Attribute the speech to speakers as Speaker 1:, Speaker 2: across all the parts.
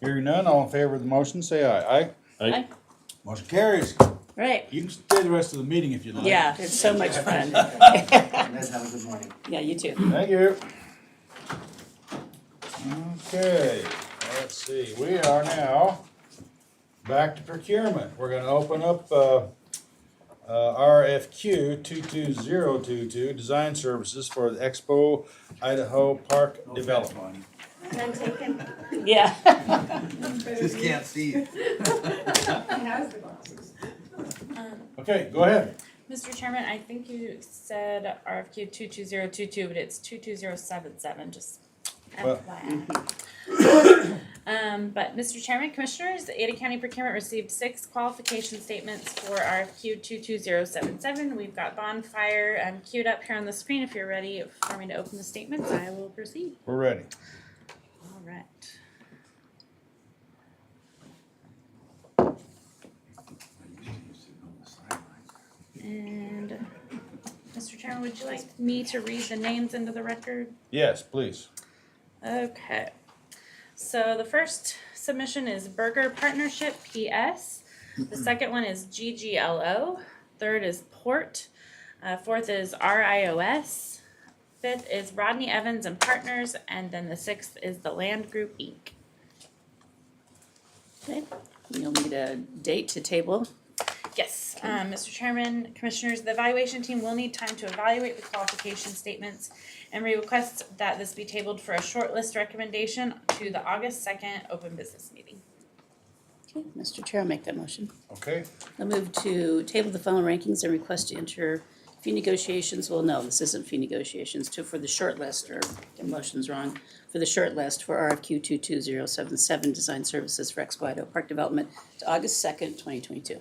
Speaker 1: Hearing none, all in favor of the motion, say aye. Aye?
Speaker 2: I,
Speaker 1: Motion carries.
Speaker 2: right,
Speaker 1: You can stay the rest of the meeting if you like.
Speaker 2: yeah, it's so much fun.
Speaker 3: And then have a good morning.
Speaker 2: Yeah, you too.
Speaker 1: Thank you. Okay, let's see, we are now back to procurement. We're gonna open up, uh, uh, RFQ two-two-zero-two-two, design services for the Expo Idaho Park Development.
Speaker 4: None taken.
Speaker 2: Yeah.
Speaker 5: Just can't see it.
Speaker 1: Okay, go ahead.
Speaker 6: Mr. Chairman, I think you said RFQ two two zero two two, but it's two two zero seven seven, just
Speaker 1: Well-
Speaker 6: FYI. Um, but Mr. Chairman, Commissioners, Ada County Procurement received six qualification statements for RFQ two two zero seven seven. We've got bonfire um queued up here on the screen. If you're ready for me to open the statements, I will proceed.
Speaker 1: We're ready.
Speaker 6: All right. And, Mr. Chairman, would you like me to read the names into the record?
Speaker 1: Yes, please.
Speaker 6: Okay. So the first submission is Burger Partnership PS. The second one is GGLO. Third is Port. Uh, fourth is RIOS. Fifth is Rodney Evans and Partners. And then the sixth is the Land Group Inc.
Speaker 2: You'll need a date to table.
Speaker 6: Yes, um, Mr. Chairman, Commissioners, the evaluation team will need time to evaluate the qualification statements and we request that this be tabled for a shortlist recommendation to the August second open business meeting.
Speaker 2: Okay, Mr. Chair, I'll make that motion.
Speaker 1: Okay,
Speaker 2: I move to table the following rankings and request to enter fee negotiations, well, no, this isn't fee negotiations, to, for the short list, or, the motion's wrong, for the short list for RFQ two-two-zero-seven-seven, Design Services for Expo Idaho Park Development, to August second, twenty twenty-two.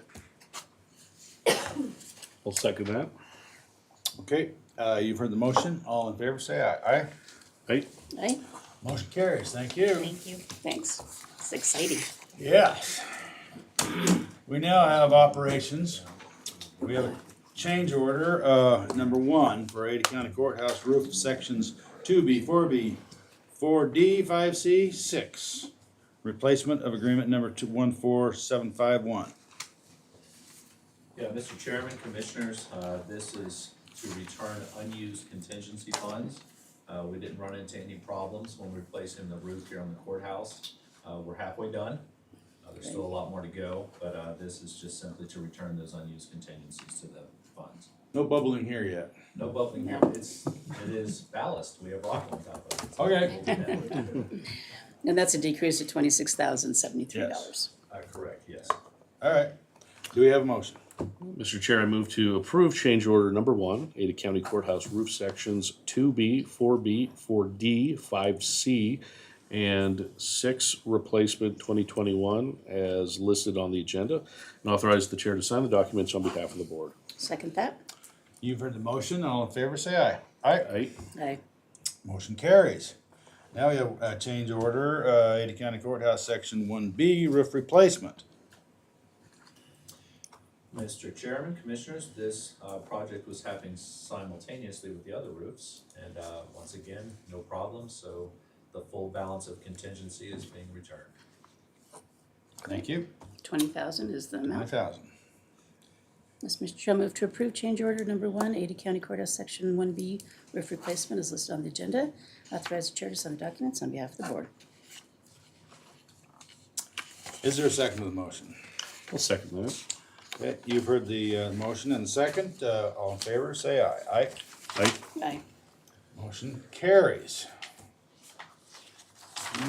Speaker 7: I'll second that.
Speaker 1: okay, uh, you've heard the motion. All in favor, say aye. Aye?
Speaker 7: Right?
Speaker 2: Right,
Speaker 1: Motion carries, thank you.
Speaker 6: Thank you.
Speaker 2: thanks, it's exciting.
Speaker 1: Yes. We now have operations. We have a change order, uh, number one for Ada County Courthouse roof sections two B, four B, four D, five C, six. Replacement of agreement number two, one, four, seven, five, one.
Speaker 5: Yeah, Mr. Chairman, Commissioners, uh, this is to return unused contingency funds. Uh, We didn't run into any problems when replacing the roof here on the courthouse. Uh, We're halfway done. Uh, There's still a lot more to go, but uh, this is just simply to return those unused contingencies to the funds.
Speaker 1: No bubbling here yet.
Speaker 5: No bubbling here, it's, it is ballast, we have rock on top of it.
Speaker 1: Okay.
Speaker 5: We'll do that later.
Speaker 2: And that's a decrease of twenty-six thousand seventy-three dollars.
Speaker 5: Uh, Correct, yes.
Speaker 1: All right. Do we have a motion?
Speaker 7: Mr. Chair, I move to approve change order number one, Ada County Courthouse Roof Sections two B, four B, four D, five C, and six replacement twenty twenty-one as listed on the agenda, and authorize the chair to sign the documents on behalf of the board.
Speaker 2: Second that?
Speaker 1: You've heard the motion. All in favor, say aye. Aye.
Speaker 7: Right?
Speaker 2: Aye.
Speaker 1: Motion carries. Now we have a change order, uh, Ada County Courthouse, section one B, roof replacement.
Speaker 5: Mr. Chairman, Commissioners, this uh, project was happening simultaneously with the other roofs. And uh, once again, no problem, so the full balance of contingency is being returned.
Speaker 1: Thank you.
Speaker 2: Twenty thousand is the
Speaker 1: Nine
Speaker 2: amount.
Speaker 1: thousand.
Speaker 2: Yes, Mr. Chair, I move to approve change order number one, Ada County Courthouse Section one B, roof replacement is listed on the agenda. Authorize the chair to sign documents on behalf of the board.
Speaker 1: Is there a second to the motion?
Speaker 7: I'll second that.
Speaker 1: Okay, you've heard the, uh, motion and the second, uh, all in favor, say aye. Aye.
Speaker 7: Right?
Speaker 2: Aye.
Speaker 1: Motion carries.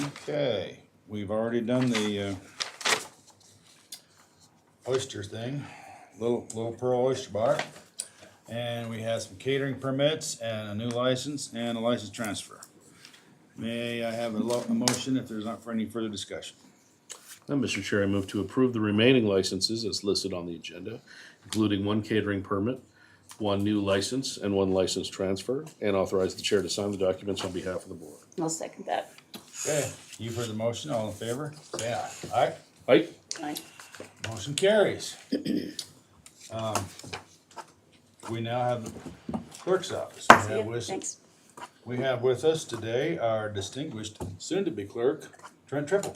Speaker 1: Okay, we've already done the, uh, oyster thing, Little, Little Pearl Oyster Bar. And we have some catering permits and a new license and a license transfer. May I have a lo- a motion if there's not for any further discussion?
Speaker 7: Now, Mr. Chair, I move to approve the remaining licenses as listed on the agenda, including one catering permit, one new license, and one license transfer, and authorize the chair to sign the documents on behalf of the board.
Speaker 2: I'll second that.
Speaker 1: Okay, you've heard the motion, all in favor, say aye. Aye?
Speaker 7: Right?
Speaker 2: Aye.
Speaker 1: Motion carries. Um, We now have the clerk's office. We
Speaker 2: See
Speaker 1: have
Speaker 2: ya.
Speaker 1: with-
Speaker 2: Thanks.
Speaker 1: We have with us today our distinguished soon-to-be clerk, Trent Triple.